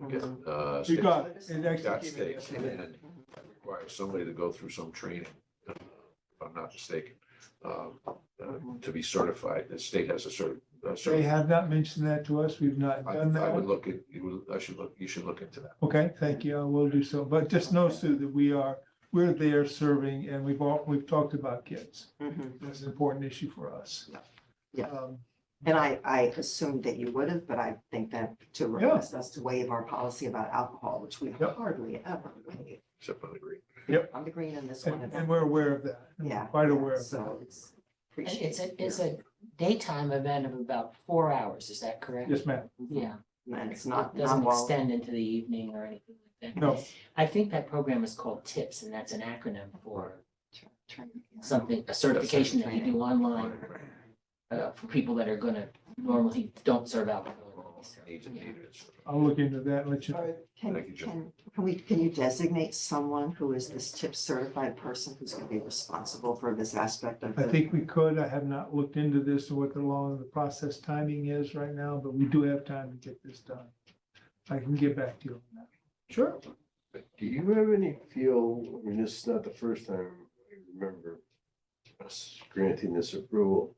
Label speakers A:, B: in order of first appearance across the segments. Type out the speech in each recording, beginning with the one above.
A: uh,
B: Mm-hmm. You
A: state-
B: got it. It actually
A: got
B: came in
A: stakes and
B: yesterday.
A: it requires somebody to go through some training, uh, if I'm not mistaken, um, uh, to be certified. The state has a cert. a
B: They
A: cert-
B: have not mentioned that to us. We've not
A: I
B: done
A: I would
B: that.
A: look at, you would- I should look, you should look into that.
B: Okay, thank you. I will do so. But just know, Sue, that we are, we're there serving and we've all, we've talked about kids.
C: Mhm.
B: That's an important issue for us.
C: Yeah.
B: Um,
C: And I, I assumed that you would have, but I think that to
B: Yeah.
C: request us to waive our policy about alcohol, which we
B: Yep.
C: hardly ever waive.
A: Except on the green.
C: I'm the green in this one.
B: And, and we're aware of that. We're
C: Yeah.
B: Quite aware of that.
C: So it's.
D: And It's a,
C: appreciated.
D: it's a daytime event of about four hours, is that correct?
B: Yes, ma'am.
D: Yeah.
C: And it's
D: It
C: not, not
D: Doesn't
C: long.
D: extend into the evening or anything like that.
B: No,
D: I think that program is called TIPS, and that's an acronym for
C: Tr- tr- yeah.
D: something, a certification that you do online uh, for people that are gonna normally don't serve alcohol.
A: Needs and needs.
B: I'll look into that, and let you, know.
C: Can,
A: Thank you, Jim.
C: can, can we, can you designate someone who is this tip certified person who's gonna be responsible for this aspect of
B: I
C: the
B: think we could. I have not looked into this and what the law and the process timing is right now, but we do have time to get this done. I can get back to you on that. Sure.
E: Do you have any feel, I mean, this is not the first time I remember us granting this approval.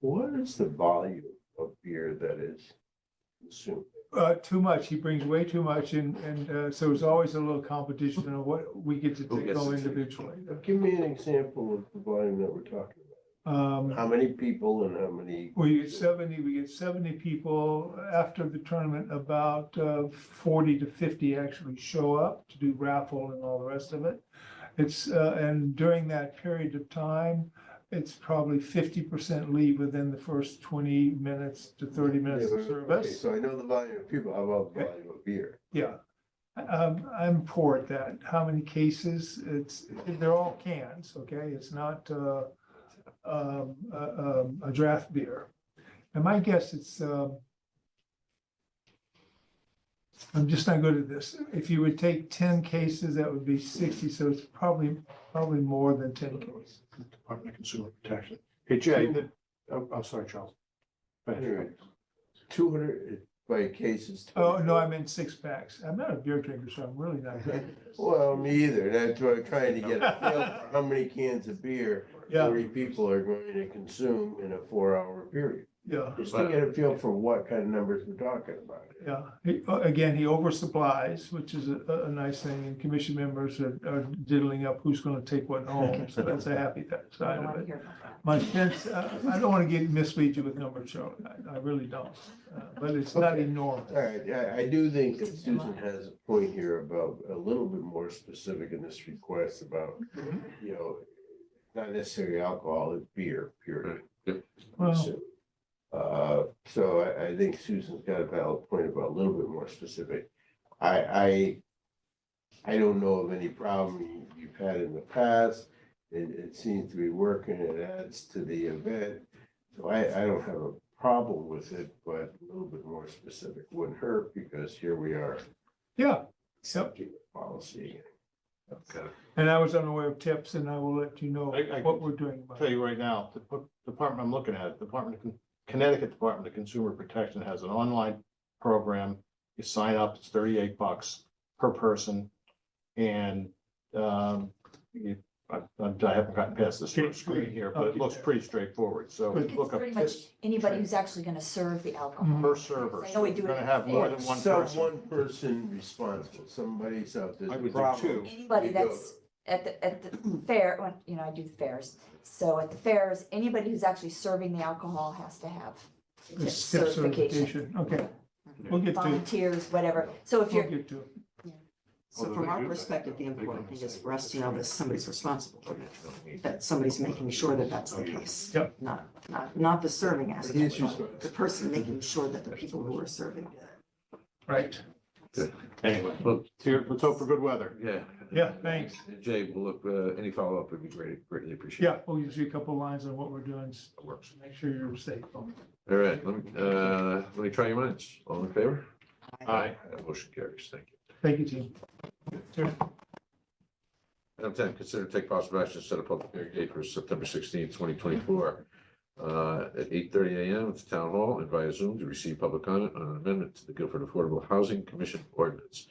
E: What is the volume of beer that is consumed?
B: Uh, too much. He brings way too much and, and, uh, so it's always a little competition of what we get to
A: Who gets
B: go
A: to take-
B: individually.
E: Give me an example of the volume that we're talking
B: Um,
E: about. How many people and how many?
B: We get seventy, we get seventy people after the tournament, about uh, forty to fifty actually show up to do raffle and all the rest of it. It's, uh, and during that period of time, it's probably fifty percent leave within the first twenty minutes to thirty minutes of
E: Yeah, but- okay,
B: service.
E: So I know the volume of people, how about the volume of beer?
B: Yeah, um, I'm poor at that. How many cases? It's, they're all cans, okay? It's not, uh, um, a, um, a draft beer. And my guess it's, um, I'm just not good at this. If you would take ten cases, that would be sixty, so it's probably, probably more than ten cases.
F: Department of Consumer Protection. Hey, Jay, the, oh, I'm sorry, Charles. Go ahead.
E: Two hundred by cases.
B: Oh, no, I meant six packs. I'm not a beer drinker, so I'm really not good at this.
E: Well, me either. That's why I'm trying to get a feel for how many cans of beer
B: Yeah.
E: forty people are going to consume in a four-hour period.
B: Yeah.
E: Just to get a feel for what kind of numbers we're talking about.
B: Yeah, he, uh, again, he oversupplies, which is a- a, a nice thing, and commission members are, are diddling up who's gonna take what home, so that's a happy
C: I
B: side
C: don't wanna
B: of it.
C: hear about that.
B: My sense, uh, I don't wanna get, mislead you with numbers, Charlie, I, I really don't, uh, but it's not
E: Okay.
B: enormous.
E: All right, I, I do think that Susan has a point here about a little bit more specific in this request about, you know, not necessarily alcohol, it's beer, period.
B: Well,
E: Uh, so I, I think Susan's got a valid point about a little bit more specific. I, I, I don't know of any problem you've had in the past. It, it seems to be working, it adds to the event. So I, I don't have a problem with it, but a little bit more specific wouldn't hurt because here we are
B: yeah, yep,
E: accepting the policy.
A: Okay.
B: and I was unaware of tips, and I will let you know
F: I- I
B: what
F: can
B: we're doing
F: I'll
B: about
F: Tell
B: it.
F: you right now, the p- department I'm looking at, Department of Con- Connecticut Department of Consumer Protection has an online program. You sign up, it's thirty-eight bucks per person. And, um, you, I, I haven't gotten past this first screen here, but it looks pretty straightforward, so
B: Good.
F: look
G: It's
F: up
G: pretty much
F: tips
G: anybody who's actually gonna serve the alcohol.
F: per server.
G: I
F: so
G: know we
F: You're
G: do it
F: gonna
G: in
F: have more than one
E: Some
F: person.
E: one person responsible, somebody's out there.
F: I would do two.
G: Anybody
E: You go.
G: that's at the, at the fair, when, you know, I do the fairs. So at the fairs, anybody who's actually serving the alcohol has to have
B: The
G: tip
B: tip
G: certification.
B: certification, okay, we'll get to, it.
G: Volunteers, whatever. So if
B: we'll
G: you're,
B: get to, it.
C: So from our perspective, the important thing is for us to know that somebody's responsible for that, that somebody's making sure that that's the case.
B: Yep.
C: Not, not, not the serving aspect,
E: He's
C: Oh, but the person making sure that the people who are serving.
B: right,
F: Anyway,
A: Well,
F: here, let's hope for good weather.
A: yeah.
B: Yeah, thanks.
A: Jay, we'll look, uh, any follow-up would be great, greatly appreciated.
B: yeah, we'll give you a couple lines on what we're doing, s-
A: It works.
B: make sure you're safe.
A: All right, let me, uh, let me try your minds. All in favor?
F: Aye.
A: That Motion carries. Thank you.
B: Thank you, Jim. Sure.
A: Item ten, consider to take possible action to set a public hearing date for September 16, twenty twenty-four uh, at eight thirty AM at the town hall and via Zoom to receive public comment on an amendment to the Guilford Affordable Housing Commission ordinance.